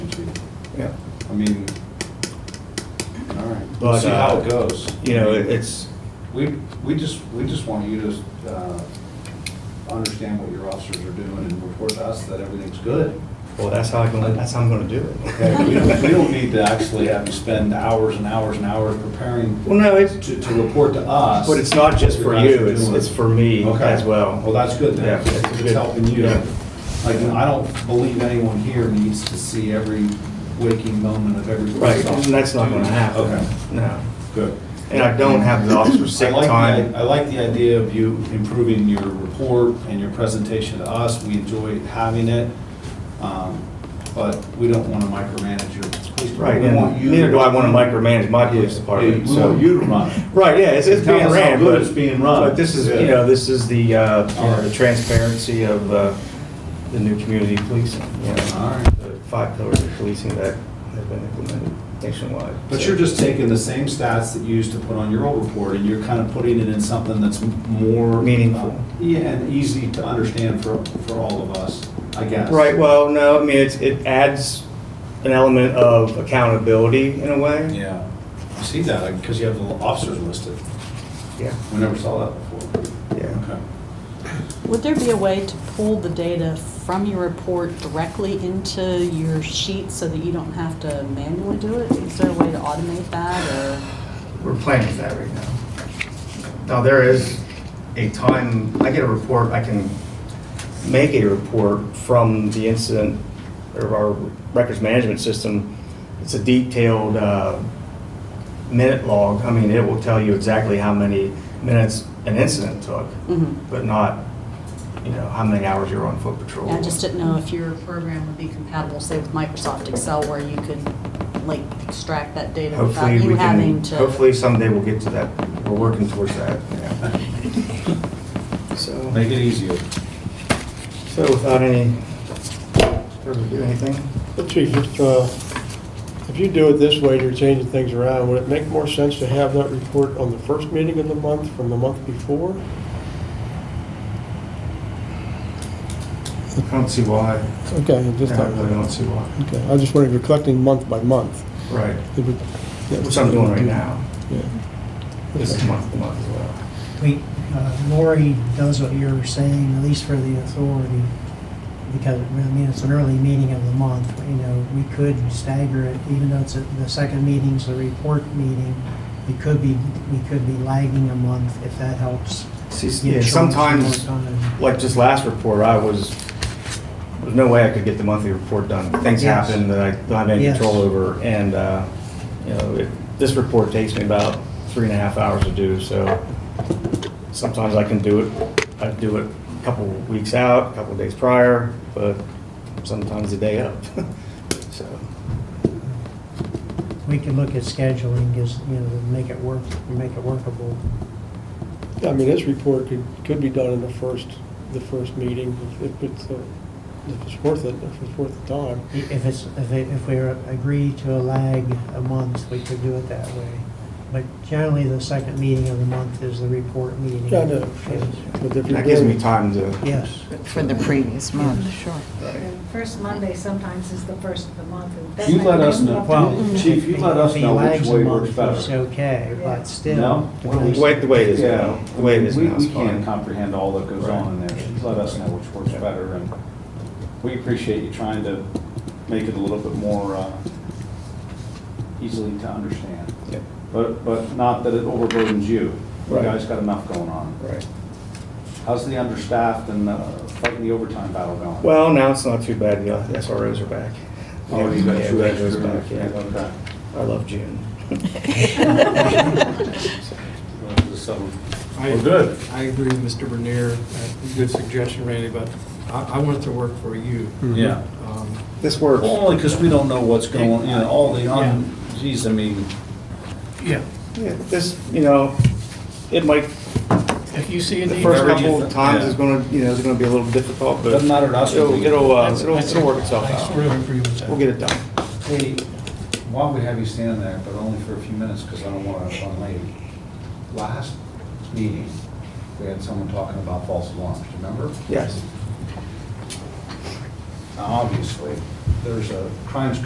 Yeah. I mean, all right. We'll But, see how uh, it goes. You know, it- it's, We, we just, we just want you to uh, understand what your officers are doing and report to us that everything's good. well, that's how I'm gonna, that's how I'm gonna do Okay, we don't, we it. don't need to actually have you spend hours and hours and hours preparing Well, no, it's, to, to report to us. but it's not just for what your you, guys it's, are it's doing. for me Okay. as well. Well, that's good Yeah, then. it's It's good. helping you. Yeah. Like, I don't believe anyone here needs to see every waking moment of every. Right, police officer. and that's not gonna happen. Okay, No. good. And I don't have the officer's sick I like the time. i- I like the idea of you improving your report and your presentation to us. We enjoy having it, um, but we don't want to micromanage your police department. Right, We want and you- neither do I wanna micromanage my police Yeah, department, We so. want you to run it. Right, yeah, it's, it's Tell being us how ran. good but- it's being run. But this is, you Yeah. know, this is the, uh, you know, the Alright. transparency of, uh, the new community policing, you know. All right. The five pillars of policing that have been implemented nationwide. But so. you're just taking the same stats that you used to put on your old report, and you're kind of putting it in something that's m- more. uh, Meaningful. Yeah, and easy to understand for, for all of us, I guess. Right, well, no, I mean, it's, it adds an element of accountability in a way. Yeah. I see that, because you have the officers listed. Yeah, We never saw that before. yeah. Okay. Would there be a way to pull the data from your report directly into your sheet so that you don't have to manually do it? Is there a way to automate that or? We're playing with that right now. Now, there is a time, I get a report, I can make a report from the incident of our records management system. It's a detailed uh, minute log. I mean, it will tell you exactly how many minutes an incident took, Mhm. but not, you know, how many hours you were on foot patrol. I just didn't know if your program would be compatible, say with Microsoft Excel, where you could like extract that data without Hopefully, you we having can, to. hopefully someday we'll get to that. We're working towards that, yeah. So. Make it easier. So without any, further do anything? Well, Chief, if, uh, if you do it this way, you're changing things around, would it make more sense to have that report on the first meeting of the month from the month before? I don't see why. Okay, I just I thought, really don't see why. okay, I was just wondering if you're collecting month by month. Right. it would- that Which was- I'm doing right now. Yeah. This is month to month as well. We, uh, Lori does what you're saying, at least for the authority, because, I mean, it's an early meeting of the month, you know, we could stagger it, even though it's, at- the second meeting's the report meeting, we could be, we could be lagging a month, if that helps. See, get yeah, Sean some sometimes, more time. like this last report, I was, there's no way I could get the monthly report done. Things Yes. happen that I don't have any Yes. control over, and, uh, you know, it- this report takes me about three and a half hours to do, so sometimes I can do it, I do it a couple weeks out, a couple days prior, but sometimes the day up, so. We could look at scheduling, just, you know, to make it work, make it workable. Yeah, I mean, this report could, could be done in the first, the first meeting, if- if it's, uh, if it's worth it, if it's worth the time. I- If it's, if it- if we agree to a lag a month, we could do it that way. But generally, the second meeting of the month is the report meeting. Yeah, I know. Yes. But if you're That gives me doing- time to. Yes. For the previous month, sure. Right. The First Monday sometimes is the first of the month. and that You might let be us know. helpful. Well, Chief, you let us If he know which lags a way works month, better. It's okay, but still. No? What do we- The way, the way it is now, the way it is We- now is We can't fine. comprehend all that goes Right. on in there. Just Let us know which works better, and we appreciate you trying to make it a little bit more uh, easily to understand. Yeah, But, but not that it overburdens you. You Right. guys got enough going on. Right. How's the understaffed and uh, fighting the overtime battle going? Well, now it's not too bad, the SROs are back. Oh, you got Yeah, two that goes extra. back, yeah. Okay. I love June. Well, just some- I- Well, good. I agree with Mr. Bernier. Uh, Good suggestion, Randy, but I, I want it to work for you. Yeah. Um, This works. Well, only because we don't know what's going, you know, all the, un- geez, I mean, Yeah, Yeah, This, you know, it might, if you see a the need. first Whatever you couple th- of times yeah. is gonna, you know, it's gonna be a little difficult, but. Doesn't matter to us. It'll, it'll, uh, That's- it'll that's- it'll work itself I sort of out. agree with that. We'll get it done. hey, why don't we have you stand there, but only for a few minutes, because I don't want to run late. Last meeting, we had someone talking about false alarms, remember? Yes. Now, Obviously, there's a crimes